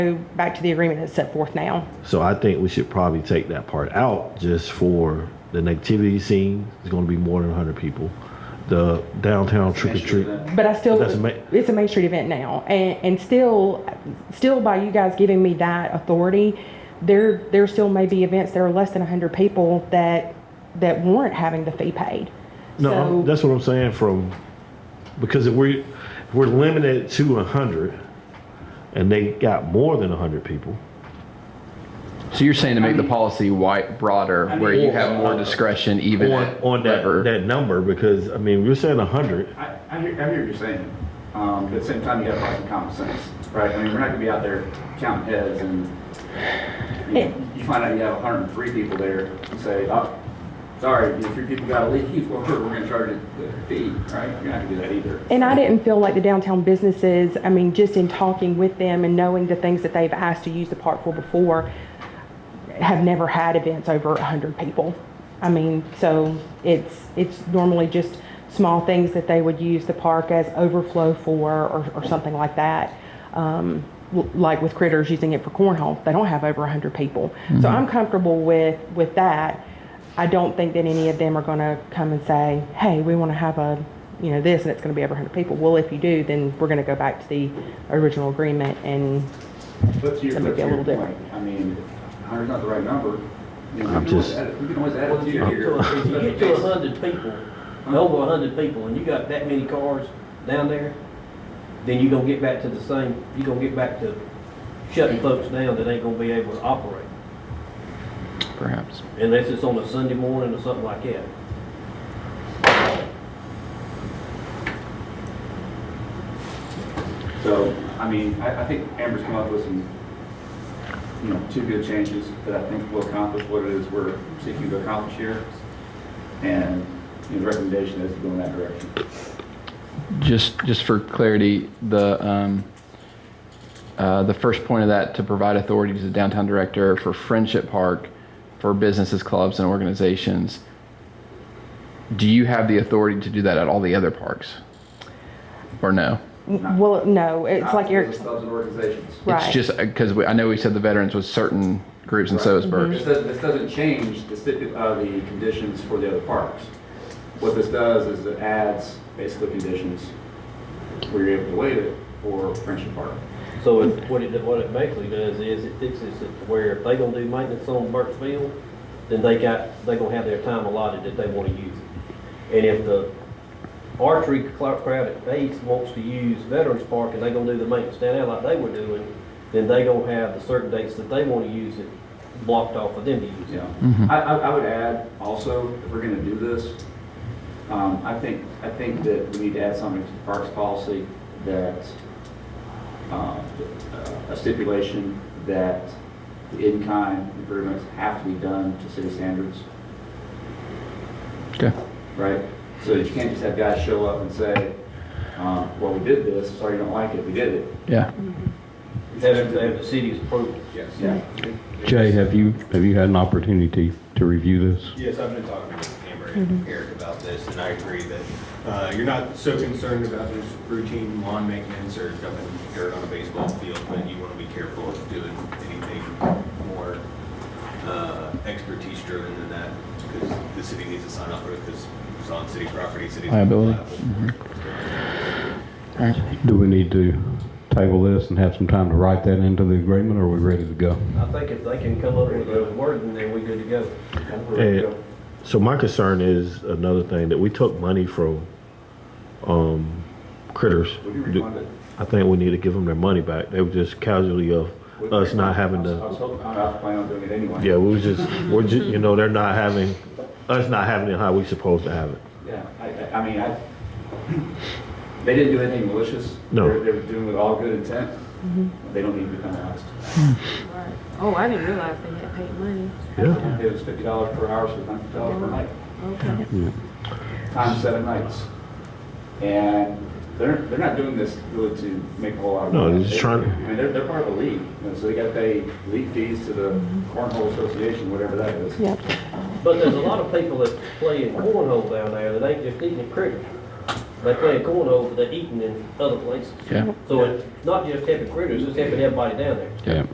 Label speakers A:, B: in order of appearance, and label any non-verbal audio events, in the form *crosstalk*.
A: go back to the agreement that's set forth now.
B: So I think we should probably take that part out just for the nativity scene. It's going to be more than 100 people. The downtown trick or treat.
A: But I still,
B: That's a ma-
A: it's a Main Street event now, and, and still, still by you guys giving me that authority, there, there still may be events that are less than hundred people that, that warrant having the fee paid.
B: No, I'm-
A: So,
B: that's what I'm saying. From because if we if we're limited to 100, and they got more than 100 people.
C: So you're saying to make the policy wide, broader, where you have more discretion even
B: on,
C: at
B: on that,
C: whatever.
B: that number because I mean we're saying 100
D: I, I hear, I hear what you're saying, um, but at the same time, you gotta apply some common sense, right? I mean, we're not gonna be out there counting heads and, you know, you find out you have hundred and three people there and say, oh, sorry, you know, three people gotta leave, *laughs* or we're gonna charge the the fee, right? You're not gonna do that either.
A: and I didn't feel like the downtown businesses, I mean, just in talking with them and knowing the things that they've asked to use the park for before, have never had events over hundred people. I mean, so it's, it's normally just small things that they would use the park as overflow for or, or something like that. Um, l- like with critters using it for cornhole, they don't have over hundred people. So I'm comfortable with, with that. I don't think that any of them are gonna come and say, hey, we wanna have a, you know, this and it's gonna be over hundred people. Well, if you do, then we're gonna go back to the original agreement and
D: But to your,
A: That
D: but
A: might
D: to
A: be a
D: your
A: little
D: point, I mean, hundred's not the right number. You know, we
B: I'm
D: can always
B: just-
D: add it- We can always add it
E: Well,
D: to
E: if you get to,
D: your.
E: a- if you
B: *laughs*
E: get to a hundred people, over a hundred people, and you got that many cars down there, then you gonna get back to the same, you gonna get back to shutting folks down that ain't gonna be able to operate,
C: Perhaps.
E: unless it's on a Sunday morning or something like that.
D: So, I mean, I, I think Amber's come up with some, you know, two good changes that I think will accomplish what it is we're seeking to accomplish here. And you know, the recommendation is to go in that direction.
C: Just, just for clarity, the, um, uh, the first point of that to provide authority to the downtown director for Friendship Park for businesses, clubs, and organizations. Do you have the authority to do that at all the other parks? Or no?
A: Well, no, it's like Eric,
D: Not for Clubs and organizations.
A: right.
C: It's just because I know we said the veterans was certain groups in
D: Right. Mm-hmm.
C: Soesburg.
D: This doesn't, this doesn't change the stipu, uh, the conditions for the other parks. What this does is it adds basically conditions where you're able to waive it for Friendship Park.
E: So it- what it, what it basically does is it fixes it to where if they gonna do maintenance on Burke's Field, then they got, they gonna have their time allotted that they wanna use. it. And if the archery cl- crowd at Bates wants to use Veterans Park and they gonna do the maintenance down there like they were doing, then they gonna have the certain dates that they wanna use it blocked off for them to use it.
D: Yeah, I, I, I would add also, if we're gonna do this, um, I think, I think that we need to add something to the parks policy that, uh, a stipulation that the in-kind improvements have to be done to city standards,
C: Okay.
D: right? So that you can't just have guys show up and say, um, well, we did this, sorry you don't like it, we did it.
C: Yeah.
E: Have it- have the city's approval.
D: Yes. Yeah.
F: Jay, have you, have you had an opportunity to review this?
G: Yes, I've been talking with Amber and Eric about this, and I agree that uh, you're not so concerned about just routine lawn maintenance or dumping dirt on a baseball field, but you want to be careful of doing anything more uh, expertise driven than that, because the city needs to sign off on it, because it's on city property, city's.
C: Liability.
F: Do we need to table this and have some time to write that into the agreement, or are we ready to go?
E: I think if they can come up with a wording, then we good to go.
B: And so my concern is another thing that we took money from um, critters.
D: We can refund it.
B: I think we need to give them their money back. They were just casualty of us not having
D: I was
B: the.
D: hoping, I was planning on doing it anyway.
B: Yeah, we was just we're just you know they're not having us not having it how we supposed to have it.
D: Yeah, I, I- I mean, I, *clears throat* they didn't do anything malicious.
B: No.
D: They were- They were doing it all good intent. They don't need to be penalized.
H: Oh, I didn't realize they had paid money.
B: Yeah.
D: It was fifty dollars per hour, so hundred dollars per night,
H: Okay.
D: times seven nights. And they're, they're not doing this really to make a whole lot of
B: No,
D: money.
B: they're just
D: They-
B: trying-
D: I mean, they're, they're part of the league, you know, so they gotta pay league fees to the cornhole association, whatever that is.
A: Yep.
E: But there's a lot of people that play in cornhole down there that ain't just eating the cricket. They play in cornhole, but they're eating in other places.
C: Yeah.
E: So it's not just helping critters, it's helping everybody down there.
F: Yeah.